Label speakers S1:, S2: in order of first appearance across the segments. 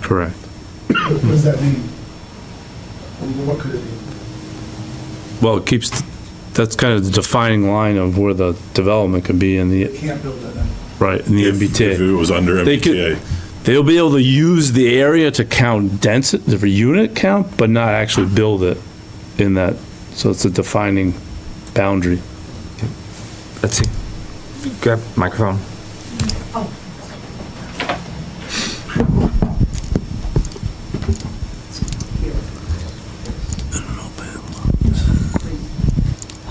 S1: Correct.
S2: What does that mean? What could it mean?
S1: Well, it keeps, that's kind of the defining line of where the development could be in
S2: They
S1: the,
S2: can't build it then.
S1: right, in the
S3: If- If
S1: MBTA.
S3: it was under
S1: They could-
S3: MBTA.
S1: They'll be able to use the area to count density, for unit count, but not actually build it in that, so it's a defining boundary.
S4: Let's see. Grab microphone.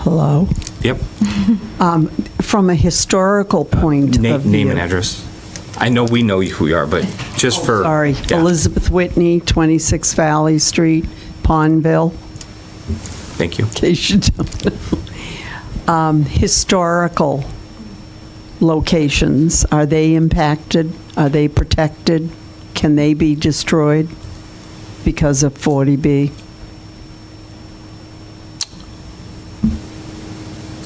S5: Hello.
S4: Yep.
S5: From a historical point
S4: Na-
S5: of view.
S4: Name and address. I know we know who you are, but just for.
S5: Oh, Sorry,
S4: Yeah.
S5: Elizabeth Whitney, 26 Valley Street, Pondville,
S4: Thank you.
S5: in case you don't know. Um, Historical locations, are they impacted? Are they protected? Can they be destroyed because of 40B?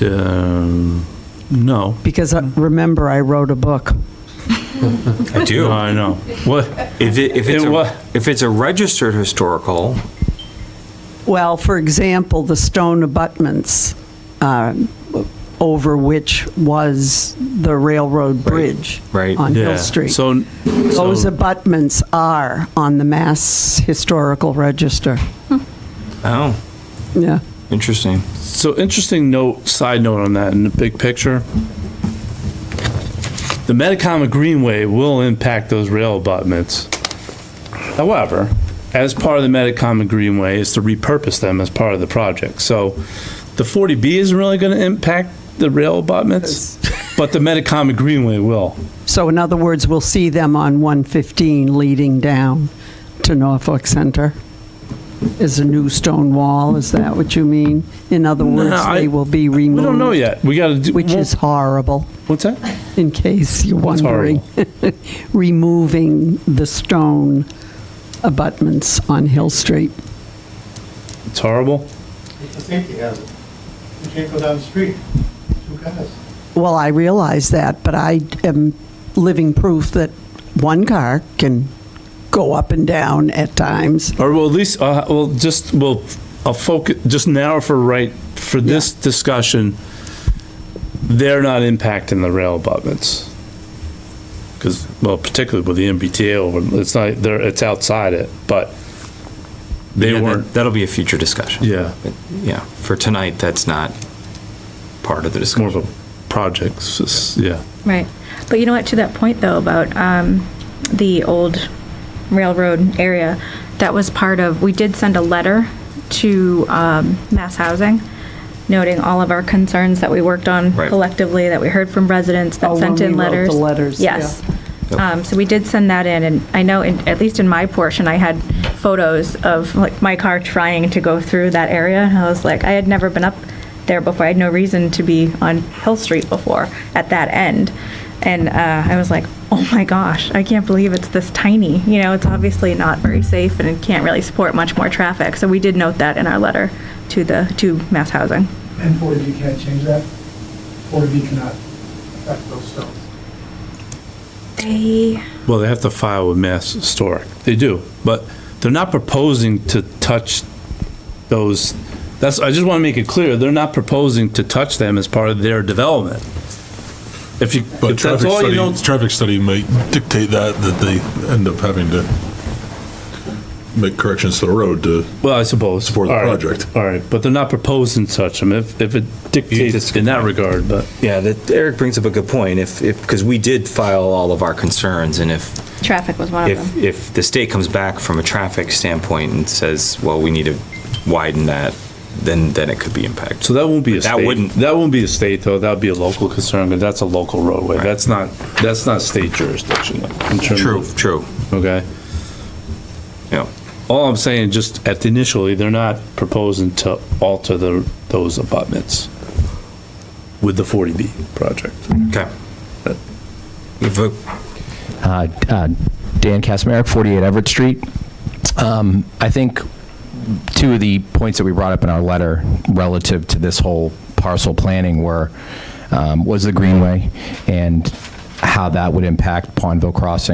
S1: Um, no.
S5: Because uh, remember, I wrote a book.
S4: I do.
S1: No, I know. What,
S4: If it, if it's,
S1: It wa-
S4: a- if it's a registered historical,
S5: Well, for example, the stone abutments uh, over which was the railroad bridge
S4: right.
S5: on
S1: yeah.
S5: Hill Street.
S1: So,
S5: Those
S1: so,
S5: abutments are on the Mass Historical Register.
S4: oh,
S5: Yeah.
S4: interesting.
S1: so interesting note, side note on that in the big picture. The Metacomet Greenway will impact those rail abutments. However, as part of the Metacomet Greenway is to repurpose them as part of the project. So the 40B isn't really going to impact the rail abutments, but the Metacomet Greenway will.
S5: So in other words, we'll see them on 115 leading down to Norfolk Center. Is a new stone wall, is that what you mean? In other words,
S1: I-
S5: they will be removed.
S1: We don't know yet. We got to do.
S5: Which is horrible.
S1: What's that?
S5: in case you're
S1: That's
S5: wondering, removing the stone abutments on Hill Street.
S1: It's horrible.
S2: It's a safety hazard. You can't go down the street, two cars.
S5: Well, I realize that, but I am living proof that one car can go up and down at times.
S1: Or well, at least, uh, well, just, well, I'll focus, just narrow for right, for this discussion, they're not impacting the rail abutments. Because, well, particularly with the MBTA, over, it's not, they're, it's outside it, but they
S4: Yeah, that-
S1: weren't,
S4: That'll be a future discussion.
S1: yeah,
S4: But, Yeah, for tonight, that's not part of the
S1: it's more of
S4: discussion.
S1: a project, it's just- yeah.
S6: Right. But you know what, to that point though, about um, the old railroad area, that was part of, we did send a letter to um, Mass Housing noting all of our concerns that we worked on
S4: Right.
S6: collectively, that we heard from residents,
S5: Oh,
S6: that
S5: when
S6: sent
S5: we
S6: in
S5: wrote the letters,
S6: letters. Yes.
S4: Yep.
S6: Um, So we did send that in, and I know, in- at least in my portion, I had photos of like my car trying to go through that area. And I was like, I had never been up there before. I had no reason to be on Hill Street before at that end. And uh, I was like, oh my gosh, I can't believe it's this tiny. You know, it's obviously not very safe and it can't really support much more traffic. So we did note that in our letter to the, to Mass Housing.
S2: And 40B can't change that? 40B cannot affect those stones.
S6: They,
S1: Well, they have to file with Mass Historic. They do, but they're not proposing to touch those. That's, I just want to make it clear, they're not proposing to touch them as part of their development. If you,
S3: But
S1: if that's
S3: traffic
S1: all you
S3: study,
S1: know,
S3: traffic study might dictate that, that they end up having to make corrections to the road to,
S1: well, I suppose.
S3: Support the
S1: All right,
S3: project.
S1: All right, but they're not proposing to touch them if, if it dictates in that regard, but.
S4: Yeah, that, Eric brings up a good point. If, if, because we did file all of our concerns and if
S6: traffic was one of them.
S4: If, if the state comes back from a traffic standpoint and says, well, we need to widen that, then, then it could be impacted.
S1: So that won't be a
S4: But that
S1: state.
S4: wouldn't-
S1: That won't be a state though. That'd be a local concern, but that's a local roadway. That's not, that's not state jurisdiction. in terms
S4: True,
S1: of-
S4: true,
S1: Okay?
S4: yeah.
S1: All I'm saying, just at the initially, they're not proposing to alter the, those abutments with the 40B project.
S4: Okay. We have a-
S7: Uh, uh, Dan Kasmerick, 48 Everett Street. Um, I think two of the points that we brought up in our letter relative to this whole parcel planning were, um, was the Greenway and how that would impact Pondville Crossing.